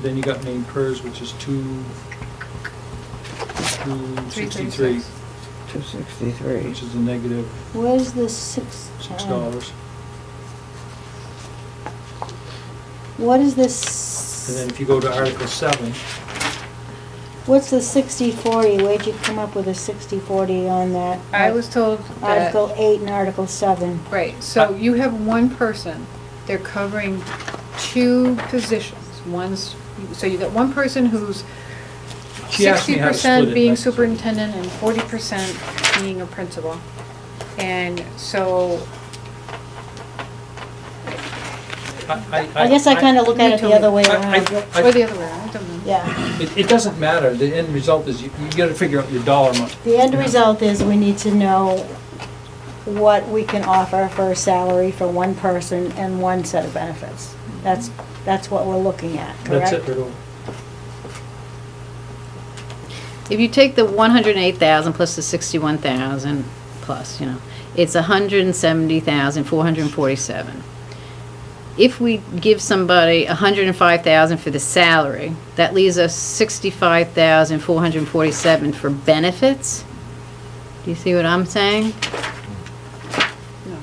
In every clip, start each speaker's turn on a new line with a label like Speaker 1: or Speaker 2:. Speaker 1: Then you got main pers, which is two, two sixty-three,
Speaker 2: 263.
Speaker 1: which is a negative
Speaker 3: Where's the six?
Speaker 1: six
Speaker 3: uh,
Speaker 1: dollars.
Speaker 3: What is
Speaker 1: And then
Speaker 3: this,
Speaker 1: if you go to Article seven,
Speaker 3: what's the sixty forty? Where'd you come up with a sixty forty on that?
Speaker 4: I was told that,
Speaker 3: Article eight and article seven.
Speaker 4: right,
Speaker 1: Uh,
Speaker 4: so you have one person, they're covering two positions. One's, so you got one person who's
Speaker 1: She asked me
Speaker 4: sixty
Speaker 1: how to split
Speaker 4: percent
Speaker 1: it,
Speaker 4: being
Speaker 1: like-
Speaker 4: superintendent and forty percent being a principal. And so,
Speaker 1: I, I.
Speaker 3: I guess I kinda look at
Speaker 4: you
Speaker 3: it the
Speaker 4: told
Speaker 3: other
Speaker 4: me.
Speaker 3: way
Speaker 1: I- I-
Speaker 3: around.
Speaker 1: I-
Speaker 4: or the other way, around, I don't know.
Speaker 3: Yeah,
Speaker 1: It, it doesn't matter, the end result is you, you gotta figure out your dollar amount.
Speaker 3: the end result is we need to know what we can offer for a salary for one person and one set of benefits. That's, that's what we're looking at, correct?
Speaker 1: That's it, right over.
Speaker 5: If you take the one hundred and eight thousand plus the sixty-one thousand plus, you know, it's a hundred and seventy thousand, four hundred and forty-seven. If we give somebody a hundred and five thousand for the salary, that leaves us sixty-five thousand, four hundred and forty-seven for benefits. Do you see what I'm saying?
Speaker 4: No.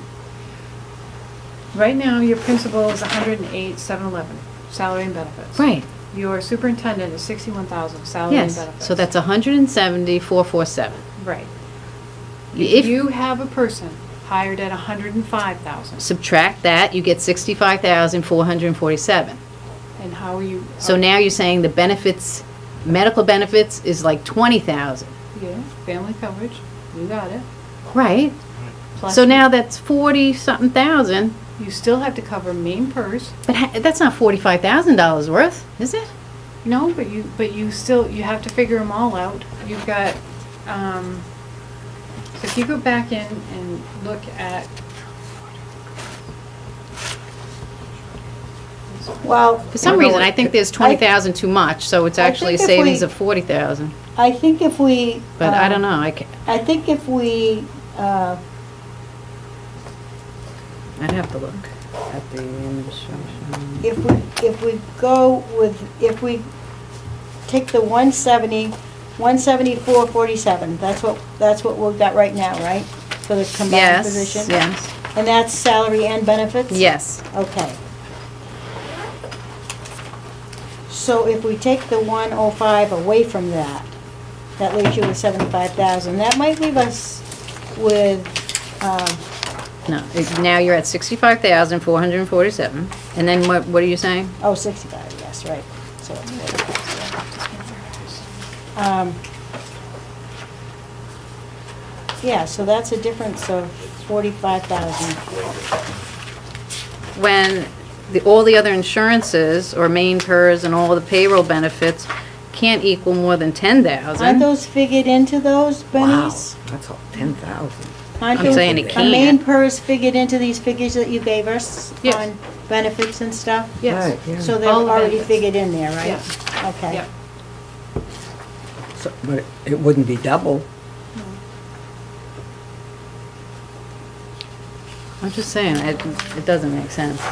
Speaker 4: Right now, your principal is a hundred and eight, seven eleven, salary and benefits.
Speaker 5: Right,
Speaker 4: Your superintendent is sixty-one thousand, salary and
Speaker 5: yes,
Speaker 4: benefits.
Speaker 5: so that's a hundred and seventy, four four seven.
Speaker 4: Right. If
Speaker 5: If,
Speaker 4: you have a person hired at a hundred and five thousand,
Speaker 5: subtract that, you get sixty-five thousand, four hundred and forty-seven.
Speaker 4: and how are you?
Speaker 5: So now you're saying the benefits, medical benefits is like twenty thousand,
Speaker 4: Yeah, family coverage, you got it.
Speaker 5: right?
Speaker 4: Plus,
Speaker 5: So now that's forty something thousand,
Speaker 4: You still have to cover main purse,
Speaker 5: but ha- that's not forty-five thousand dollars worth, is it?
Speaker 4: no, but you, but you still, you have to figure them all out. You've got, um, so if you go back in and look at.
Speaker 3: Well,
Speaker 5: For some reason, I think there's twenty thousand too much, so it's
Speaker 3: I
Speaker 5: actually a
Speaker 3: think if
Speaker 5: savings
Speaker 3: we-
Speaker 5: of forty thousand.
Speaker 3: I think if we.
Speaker 5: But I
Speaker 3: um,
Speaker 5: don't know, I ca-
Speaker 3: I think if we, uh,
Speaker 5: I'd have to look at the administration.
Speaker 3: if we, if we go with, if we take the 170, 174.47, that's what, that's what we've got right now, right? For the combined
Speaker 5: Yes,
Speaker 3: position?
Speaker 5: yes,
Speaker 3: And that's salary and benefits?
Speaker 5: yes.
Speaker 3: Okay. So if we take the 105 away from that, that leaves you with 75,000. That might leave us with, um,
Speaker 5: No, it- now you're at sixty-five thousand, four hundred and forty-seven, and then what, what are you saying?
Speaker 3: Oh, 65, yes, right. So it's 45, yeah. Um, Yeah, so that's a difference of 45,000.
Speaker 5: when the, all the other insurances, or main pers and all the payroll benefits, can't equal more than ten
Speaker 3: Aren't
Speaker 5: thousand.
Speaker 3: those figured into those,
Speaker 2: Wow,
Speaker 3: bennies?
Speaker 2: that's all, 10,000.
Speaker 3: Aren't
Speaker 5: I'm
Speaker 3: they-
Speaker 5: saying it
Speaker 3: Are main
Speaker 5: can't.
Speaker 3: pers figured into these figures that you gave us
Speaker 5: Yes.
Speaker 3: on benefits and stuff?
Speaker 2: Right,
Speaker 4: Yes,
Speaker 2: yeah.
Speaker 3: So they're
Speaker 4: All the
Speaker 3: already
Speaker 4: benefits.
Speaker 3: figured in there, right?
Speaker 4: Yep.
Speaker 3: Okay.
Speaker 2: So- But it wouldn't be double.
Speaker 5: I'm just saying, it, it doesn't make sense.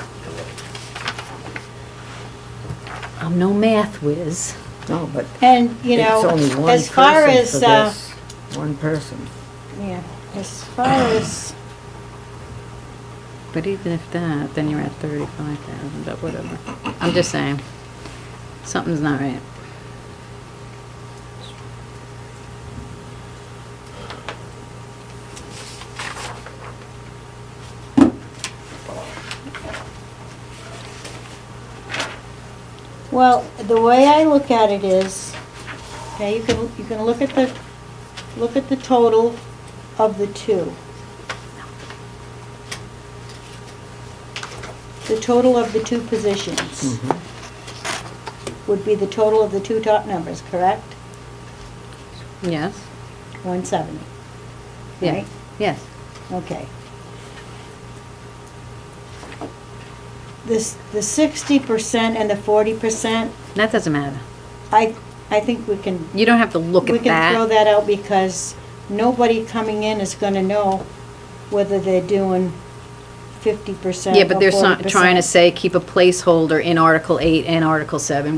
Speaker 5: I'm no math whiz.
Speaker 2: No, but
Speaker 3: And, you
Speaker 2: it's
Speaker 3: know,
Speaker 2: only one
Speaker 3: as far
Speaker 2: person
Speaker 3: as,
Speaker 2: for
Speaker 3: uh,
Speaker 2: this, One person.
Speaker 3: yeah, as far as,
Speaker 5: But even if that, then you're at thirty-five thousand, but whatever. I'm just saying, something's not right.
Speaker 3: Well, the way I look at it is, okay, you can, you can look at the, look at the total of the two. The total of the two positions
Speaker 2: Mhm.
Speaker 3: would be the total of the two top numbers, correct?
Speaker 5: Yes?
Speaker 3: One seventy,
Speaker 5: Yeah.
Speaker 3: right?
Speaker 5: Yes.
Speaker 3: Okay. This, the sixty percent and the forty percent,
Speaker 5: That doesn't matter.
Speaker 3: I, I think we can
Speaker 5: You don't have to look
Speaker 3: We
Speaker 5: at
Speaker 3: can throw
Speaker 5: that.
Speaker 3: that out because nobody coming in is gonna know whether they're doing fifty percent uh,
Speaker 5: Yeah, but they're not trying to say keep a placeholder in Article eight and Article seven,